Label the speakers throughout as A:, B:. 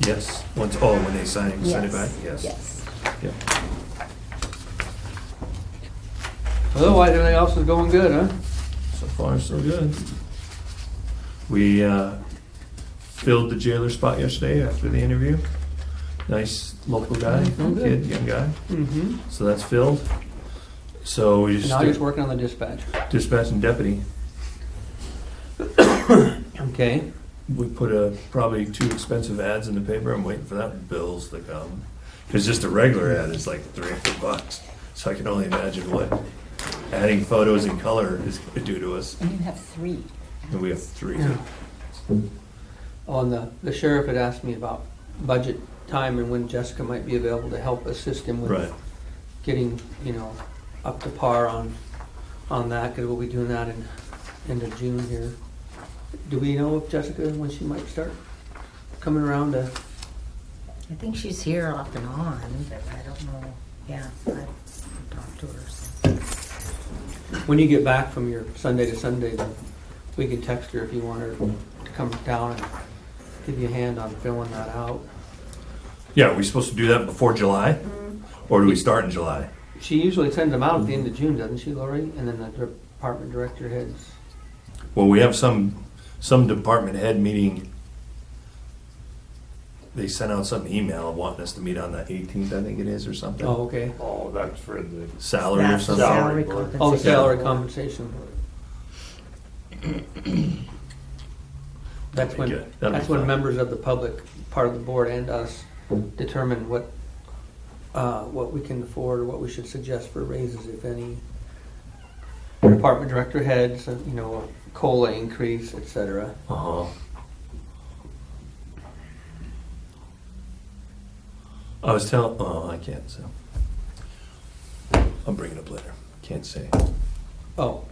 A: Yes, once, oh, when they sign, send it back, yes.
B: Yes.
A: Yep.
C: Otherwise, everything else is going good, huh?
A: So far, so good. We uh, filled the jailer spot yesterday after the interview. Nice local guy,
C: Oh, good.
A: kid, young guy.
C: Mm-hmm.
A: So that's filled. So we
C: Now you're
A: just
C: just working on the dispatch.
A: dispatch and deputy.
C: Okay.
A: We put a, probably two expensive ads in the paper. I'm waiting for that bills to come. Because just a regular ad is like three or four bucks. So I can only imagine what adding photos and color is going to do to us.
B: And you have three.
A: And we have three.
C: On the, the sheriff had asked me about budget time and when Jessica might be available to help assist him
A: Right.
C: with getting, you know, up to par on, on that, because we'll be doing that in, end of June here. Do we know if Jessica, when she might start coming around to,
D: I think she's here off and on, but I don't know, yeah, I've talked to her. so.
C: when you get back from your Sunday to Sunday, then we can text her if you want her to come down and give you a hand on filling that out.
A: Yeah, are we supposed to do that before July? Or do we start in July?
C: She usually sends them out at the end of June, doesn't she, Lori? And then the department director heads.
A: Well, we have some, some department head meeting. They sent out some email wanting us to meet on the eighteenth, I think it is, or something.
C: Oh, okay.
E: Oh, that's for the.
A: Salary or
D: That's the
A: something.
D: Salary
E: Salary board.
D: compensation.
C: Oh, salary
D: board.
C: compensation. That's
A: That'd be
C: when,
A: good. That'd be
C: that's when
A: fun.
C: members of the public, part of the board and us, determine what, uh, what we can afford, or what we should suggest for raises, if any. Department director heads, uh, you know, a COLA increase, et cetera.
A: Uh-huh. I was telling, oh, I can't, so. I'll bring it up later. Can't say.
C: Oh,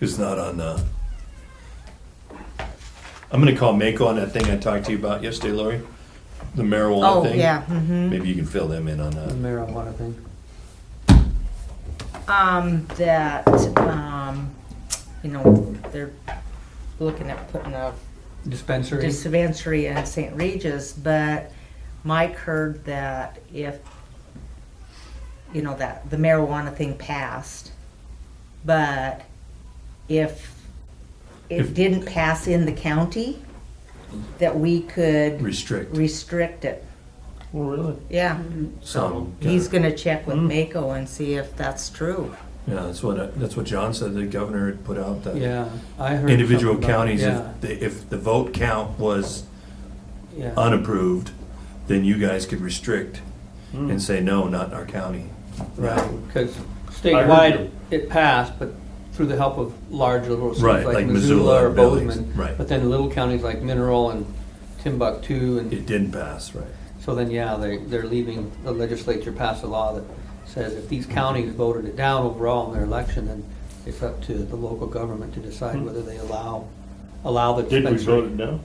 A: It's not on, uh, I'm gonna call Mako on that thing I talked to you about yesterday, Lori, the marijuana
D: Oh,
A: thing.
D: yeah, mhm.
A: Maybe you can fill them in on
C: the
A: that.
C: marijuana thing.
D: Um, that, um, you know, they're looking at putting a
C: Dispensary.
D: dispensary in St. Regis, but Mike heard that if, you know, that the marijuana thing passed, but if
A: If-
D: it didn't pass in the county, that we could
A: Restrict
D: restrict it.
E: Oh, really?
D: Yeah.
A: some.
D: He's gonna check with Mako and see if that's true.
A: Yeah, that's what, I- that's what John said, the governor had put out that
C: Yeah, I heard.
A: individual
C: something about-
A: counties,
C: Yeah,
A: if, the- if the vote count was
C: yeah.
A: unapproved, then you guys could restrict and say, no, not in our county.
C: Hmm. Right, because
E: I
C: statewide,
E: heard
C: it passed, but through the help of large liberal
A: Right,
C: cities
A: like
C: like
A: Missoula
C: Missoula or
A: and Billings,
C: Bozeman.
A: right.
C: But then little counties like Mineral and Timbuktu, and
A: It didn't pass, right?
C: so then, yeah, they, they're leaving, the legislature passed a law that says if these counties voted it down overall in their election, then it's up to the local government to decide whether they allow, allow the
E: Hmm. Did we vote
C: dispensary.
E: it down?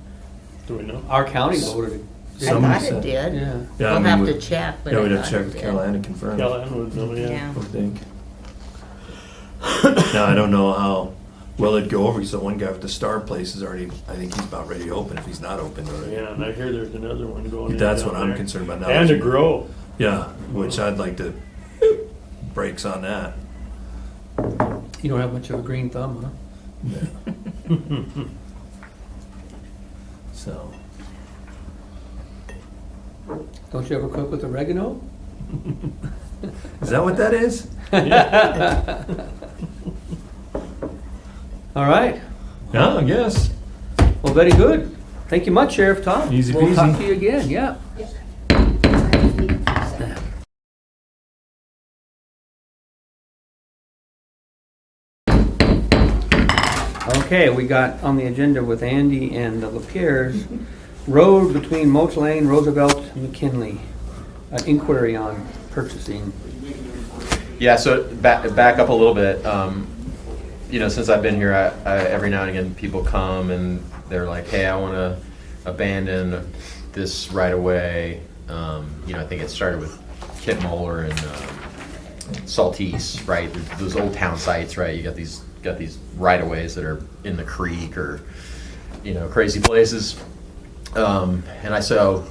E: Do we know?
C: Our county voted it.
D: I
A: Some
D: thought
A: said-
D: it did.
C: Yeah.
A: Yeah, I
D: We'll
A: mean,
D: have
A: we-
D: to check, but
A: Yeah, we'd
D: I
A: have to
D: thought
A: check
D: it
A: with
D: did.
A: Caroline and confirm.
E: Callahan would know, yeah.
D: Yeah.
A: I think. Now, I don't know how well it'd go over, because the one guy with the star place is already, I think he's about ready to open, if he's not open already.
E: Yeah, and I hear there's another one going in.
A: That's
E: down
A: what I'm
E: there.
A: concerned about now.
E: And a grow.
A: Yeah, which I'd like to, breaks on that.
C: You don't have much of a green thumb, huh?
A: So,
C: Don't you ever cook with oregano?
A: is that what that is?
C: All right.
A: Yeah, I guess.
C: Well, very good. Thank you much, Sheriff Tom.
A: Easy
C: We'll talk
A: peasy.
C: to you again, yeah. Okay, we got on the agenda with Andy and the Lapierre's road between Moats Lane, Roosevelt, and McKinley. An inquiry on purchasing.
F: Yeah, so back, back up a little bit. Um, you know, since I've been here, I, I, every now and again, people come and they're like, hey, I want to abandon this right away. Um, you know, I think it started with Kit Moeller and um, Saltese, right? Those old town sites, right? You got these got these right of ways that are in the creek or you know crazy places. Um, and I so